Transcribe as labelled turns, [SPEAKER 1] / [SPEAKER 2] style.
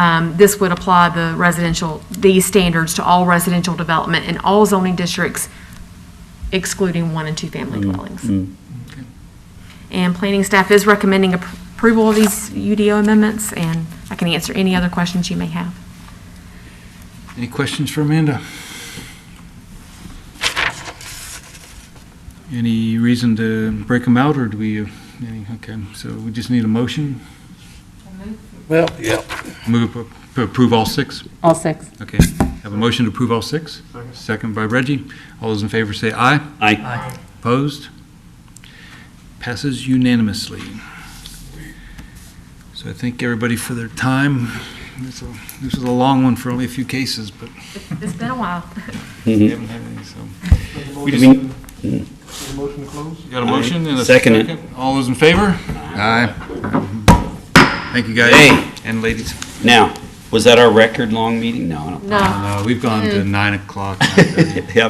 [SPEAKER 1] Um, This would apply the residential, these standards to all residential development in all zoning districts excluding one and two-family dwellings. And planning staff is recommending appro- approval of these UDO amendments, and I can answer any other questions you may have.
[SPEAKER 2] Any questions for Amanda? Any reason to break them out, or do we, uh, any, okay, so we just need a motion?
[SPEAKER 3] Well, yeah.
[SPEAKER 2] Move to appro- approve all six?
[SPEAKER 4] All six.
[SPEAKER 2] Okay, have a motion to approve all six? Second. by Reggie. All those in favor say aye.
[SPEAKER 5] Aye.
[SPEAKER 2] Opposed? Passes unanimously. So I thank everybody for their time. This was a- this was a long one for only a few cases, but
[SPEAKER 1] It's been a while.
[SPEAKER 5] Mm-hmm.
[SPEAKER 2] we haven't had any, so. We just-
[SPEAKER 3] Motion to close?
[SPEAKER 2] Got a motion and a
[SPEAKER 5] Second it.
[SPEAKER 2] second? All those in favor? Aye. Thank you, guys.
[SPEAKER 5] Hey.
[SPEAKER 2] And ladies.
[SPEAKER 5] Now, was that our record long meeting? No, I don't.
[SPEAKER 1] No.
[SPEAKER 2] Uh, We've gone to nine o'clock.
[SPEAKER 5] Yeah,